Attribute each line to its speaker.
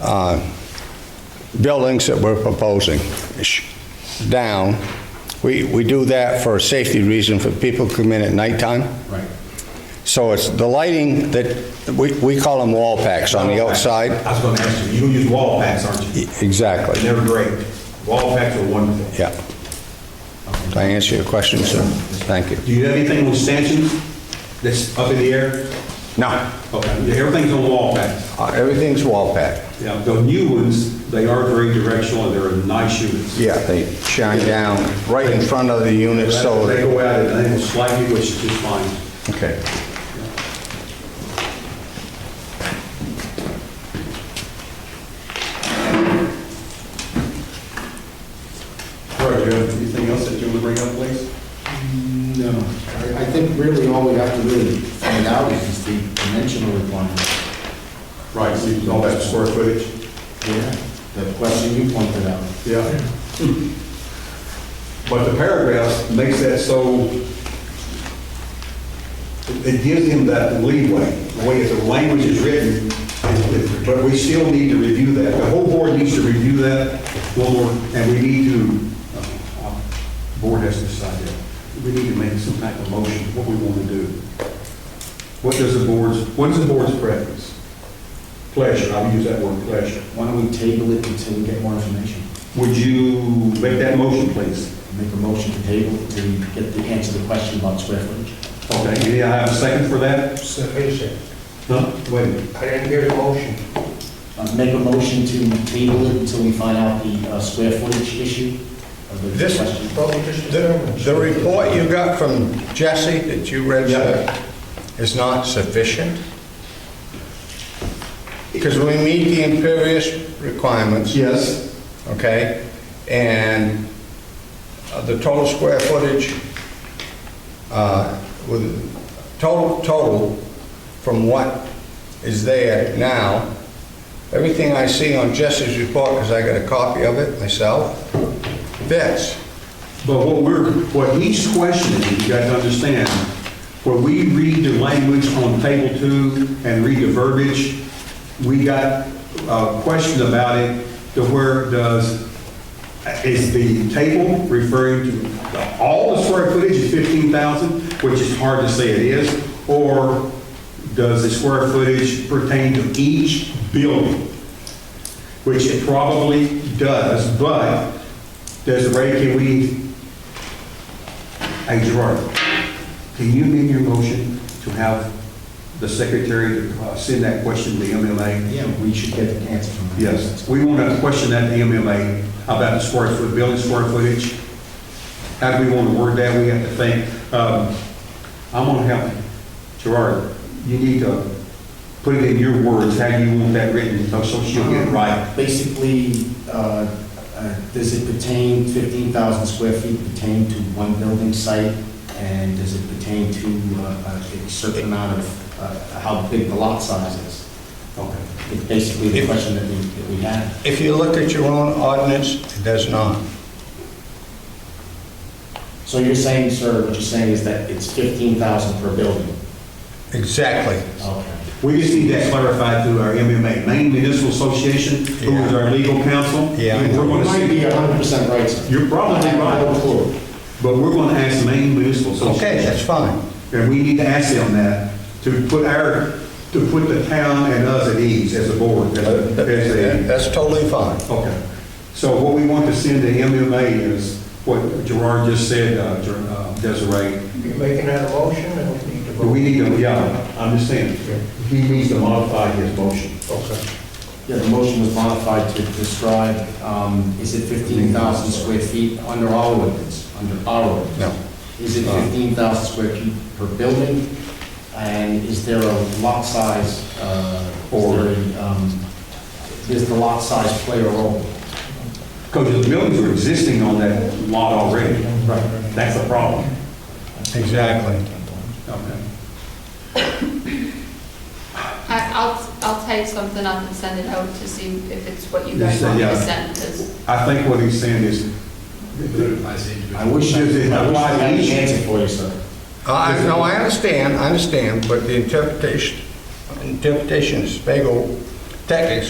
Speaker 1: uh, buildings that we're proposing sh- down. We, we do that for a safety reason, for people to come in at nighttime.
Speaker 2: Right.
Speaker 1: So it's the lighting that, we, we call them wall packs on the outside. E,
Speaker 2: I was gonna ask you, you don't use wall packs, aren't you?
Speaker 1: Exactly,
Speaker 2: They're great. Wall packs are wonderful.
Speaker 1: yeah. Did I answer your question, sir? Thank you.
Speaker 2: Do you have anything with stanchions that's up in the air?
Speaker 1: No,
Speaker 2: Okay, yeah, everything's on wall packs.
Speaker 1: uh, everything's wall packed.
Speaker 2: Now, the new ones, they are very directional and they're nice units.
Speaker 1: Yeah, they shine down right in front of the unit, so...
Speaker 2: They go out at an angle slightly, which is fine.
Speaker 1: Okay.
Speaker 2: All right, do you have anything else that you would bring up, please?
Speaker 3: No, I I think really all we have to really find out is just the dimensional requirement.
Speaker 2: Right, so you- all that square footage?
Speaker 3: Yeah. The question you pointed out.
Speaker 2: Yeah. But the paragraph makes that so, it- it gives him that leeway, the way that the language is written, it- but we still need to review that. The whole board needs to review that, one more, and we need to, uh, uh, board has to decide that. We need to make some type of motion, what we want to do. What does the board's, what is the board's preference? Pleasure, I'll use that word, pleasure.
Speaker 3: Why don't we table it until we get more information?
Speaker 2: Would you make that motion, please?
Speaker 3: Make a motion to table to get the answer to the question about square footage.
Speaker 2: Okay, yeah, I have a second for that?
Speaker 4: Sufficient.
Speaker 2: No, wait a minute.
Speaker 4: I didn't hear the motion.
Speaker 3: Uh, Make a motion to table it until we find out the uh, square footage issue of the
Speaker 1: This-
Speaker 3: question.
Speaker 4: But we just
Speaker 1: The the report you got from Jesse that you read, sir, is not sufficient? Because we meet the imperious requirements,
Speaker 2: Yes.
Speaker 1: okay? And uh, the total square footage, uh, with, total, total from what is there now, everything I see on Jesse's report, because I got a copy of it myself, fits.
Speaker 2: But what we're, what he's questioning, you guys understand, where we read the language on table two and read the verbiage, we got a question about it to where does, is the table referring to all the square footage is 15,000, which is hard to say it is, or does the square footage pertain to each building? Which it probably does, but Desiree, can we Hey Gerard, can you amend your motion to have the secretary uh, send that question to the MMA?
Speaker 3: Yeah, we should get the answer from them.
Speaker 2: Yes, we want to question that to the MMA about the square foot, building square footage. How do we want to word that? We have to think. Um, I'm going to help you. Gerard, you need to put it in your words, how you want that written, so she'll get
Speaker 1: Uh-huh.
Speaker 2: it right.
Speaker 3: Basically, uh, uh, does it pertain, 15,000 square feet pertain to one building site? And does it pertain to uh, a certain amount of, uh, how big the lot size is?
Speaker 2: Okay.
Speaker 3: It's basically the question that we, that we have.
Speaker 1: If you look at your own ordinance, it does not.
Speaker 3: So you're saying, sir, what you're saying is that it's 15,000 per building?
Speaker 1: Exactly.
Speaker 3: Okay.
Speaker 2: We just need that clarified through our MMA, Maine Municipal Association, who is our legal counsel.
Speaker 1: Yeah.
Speaker 2: And We're
Speaker 3: You
Speaker 2: going to
Speaker 3: might
Speaker 2: see.
Speaker 3: be 100% right, sir.
Speaker 2: You're probably
Speaker 3: I have no
Speaker 2: right,
Speaker 3: clue.
Speaker 2: but we're going to ask Maine Municipal
Speaker 1: Okay, that's
Speaker 2: Association,
Speaker 1: fine.
Speaker 2: and we need to ask them that, to put our, to put the town and us at ease as a board, as a, as a,
Speaker 1: That's totally fine.
Speaker 2: okay. So what we want to send to MMA is what Gerard just said, uh, Ger- uh, Desiree,
Speaker 4: You're making that a motion, and we need to vote.
Speaker 2: but we need to, yeah, I'm just saying, he needs to modify his motion.
Speaker 4: Okay.
Speaker 3: Yeah, the motion was modified to describe, um, is it 15,000 square feet under our ordinance, under our ordinance?
Speaker 1: No.
Speaker 3: Is it 15,000 square feet per building? And is there a lot size, uh, or, um, does the lot size play a role?
Speaker 2: Because the buildings are existing on that lot already.
Speaker 3: Right.
Speaker 2: That's the problem.
Speaker 1: Exactly.
Speaker 2: Okay.
Speaker 5: I- I'll, I'll type something up and send it out to see if it's what you
Speaker 2: Yes,
Speaker 5: guys want me to
Speaker 2: yeah.
Speaker 5: send, 'cause-
Speaker 2: I think what he's saying is,
Speaker 3: I wish, I I
Speaker 2: Does it
Speaker 3: wish I
Speaker 2: apply
Speaker 3: had
Speaker 2: to
Speaker 3: an
Speaker 2: each?
Speaker 3: answer for you, sir.
Speaker 1: I, no, I understand, I understand, but the interpretation, interpretation of Spago tactics